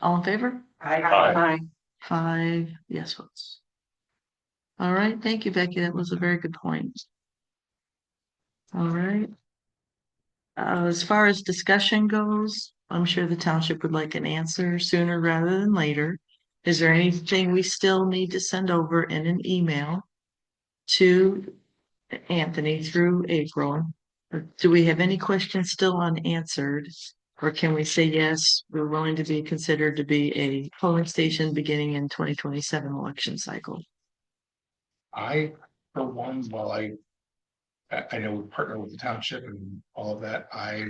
All in favor? Aye. Five yes votes. All right, thank you, Becky. That was a very good point. All right. Uh, as far as discussion goes, I'm sure the township would like an answer sooner rather than later. Is there anything we still need to send over in an email to Anthony through April? Or Do we have any questions still unanswered? Or can we say, yes, we're willing to be considered to be a polling station beginning in twenty twenty-seven election cycle? I, for one, while I. I, I know we partner with the township and all of that, I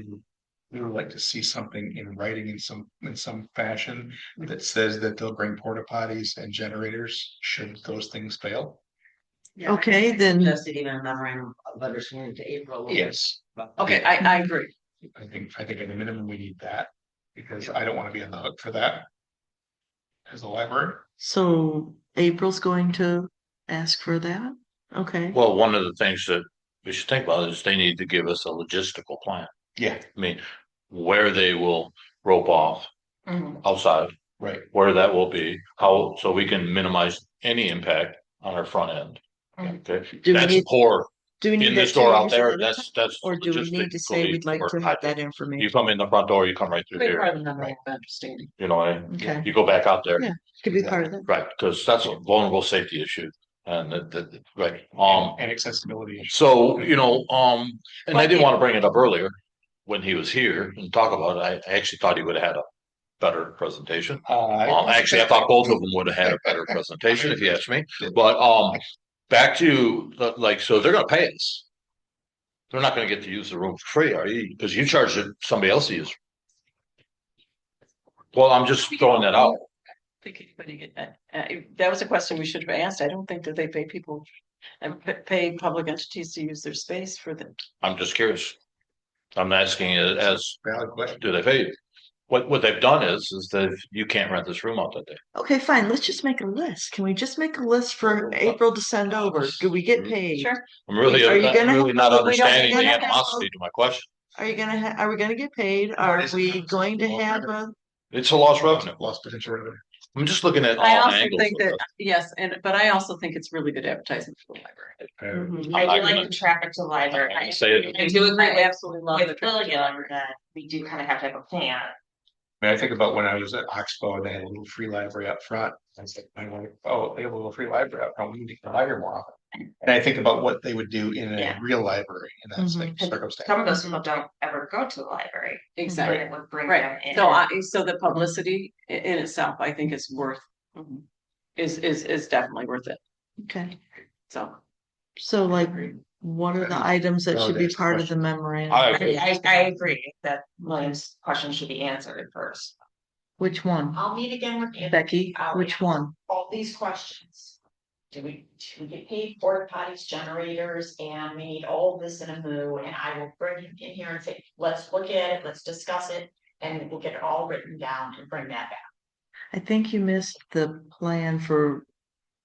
we would like to see something in writing in some, in some fashion. That says that they'll bring porta potties and generators should those things fail. Yeah, I Okay, then, Suggested even a memorandum of understanding to April. Yes, Okay, I, I agree. I think, I think at a minimum, we need that, because I don't wanna be on the hook for that. As a library, so April's going to ask for that? Okay, Well, one of the things that we should think about is they need to give us a logistical plan. yeah, I mean, where they will rope off Mm-hmm. outside, right, where that will be, how, so we can minimize any impact on our front end. Mhm. Okay, Do we that's need- poor do we need in the that store out changed there. or- That's, that's. Or do we need to say logistically we'd like to poor. have that You information? come in the front door, you come right through Great here, part of the memorandum of understanding. you know, and Okay, you go back out there. Yeah. could be part of that. Right, because that's a vulnerable safety issue and that, that, right, um. and accessibility. issues. So, you know, um, and I didn't want to bring it up earlier when he was here and talk about it. I actually thought he would have had a better presentation. Uh, Um, actually, I thought both of them would have had a better presentation if you ask me, but, um, back to the- like, so they're gonna pay us. They're not gonna get to use the room for free, are you? Because you charged it somebody else to use. Well, I'm just throwing that out. think anybody, uh, uh, that was a question we should have asked. I don't think that they pay people and p- pay public entities to use their space for the I'm just curious. I'm asking it as, Valid question, do they pay you? What, what they've done is, is that you can't rent this room out that day. Okay, fine, let's just make a list. Can we just make a list for April to send over? Do we get Mm-hmm. paid? Sure. I'm really, Are you I'm gonna- really not we don't- we understanding the don't have- animosity to my question. Are you gonna, ha- are we gonna get paid? Are is it we not- going to Well, have a? It's a lost revenue. lost potential revenue. I'm just looking at all I also angles. think of that, yes, and, but I also think it's really good advertising for the library. Mm-hmm. Uh, I'm I not do like gonna- the traffic to this. I'm library. not I gonna Say it. I do agree with, absolutely with William that we do kind of have to have a plan. I mean, I think about when I was at Oxbow and they had a little free library up front. I said, my wife, oh, they have a little free library up front. We need to get the library more often. And I think about what they would do in a Yeah. real library in that Mm-hmm. same Mhm. circumstance. Some of those people don't ever go to the library. and Exactly, it would bring them right. in. So I, so Mm-hmm. the publicity i- in itself, I think is worth, is, is, is definitely worth it. Okay, So. so like, what are the items that should be Validates the part of the question. memorandum? I agree. I, I, I agree that William's question should be answered first. Which one? I'll meet again with Anthony, Becky, I'll which answer one? all these questions. Do we, do we get paid porta potties, generators, and we need all this in a moo, and I will bring him in here and say, let's look at it, let's discuss it. And we'll get it all written down and bring that back. I think you missed the plan for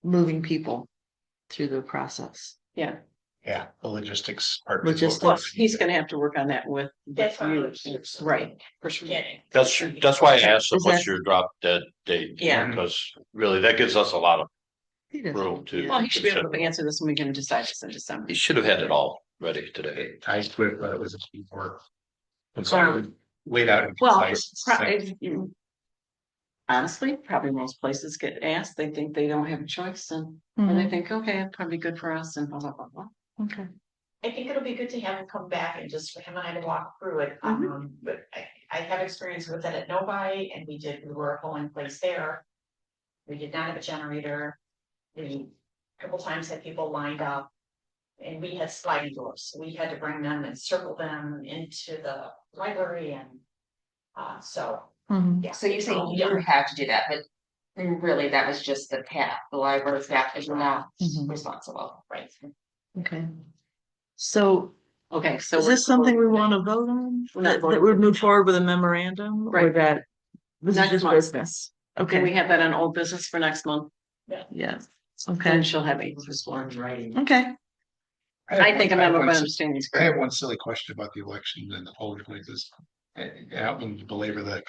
moving people through the process. Yeah, the logistics part. is what Logistics. we're- Plus, he's gonna have to work on that with. with That's what I you. would do. Right, for sure. Getting. That's, that's why I asked them, Is what's that- your drop dead date? Yeah. Because really, that gives us a lot of He doesn't- room to. Well, he should be able to consider. answer this and we can decide this in December. He should have had it all ready today. It ties to it, but it was a key word. And Wow. so laid out. in Well, concise it's pro- sense. if you- honestly, probably most places get asked, they think they don't have a choice and, and they Mhm, think, okay, it's probably good for us and blah, blah, blah, blah. Okay, I think it'll be good to have him come back and just for him and I to walk through it, Mm-hmm. um, but I, I have experience with it at Novi and we did, we were a polling place there. We did not have a generator, we a couple times had people lined up. And we had sliding doors, so we had to bring them and circle them into the library and. Uh, so, mhm. yeah. So you're saying you don't have to do that, but really that was just the path. The library staff is not Mhm. responsible. Right, okay. So Okay, so. is we're- this something we want to vote on? We're not That voting. that would move forward with a memorandum or Right. that? This is Next just month. business. Can we Okay, have that on old business for next month? yeah, And okay, she'll have it. okay. have I think a one- have member of one- understanding is I great. have one silly question about the election and the polling places. And, and I don't mean to belabor the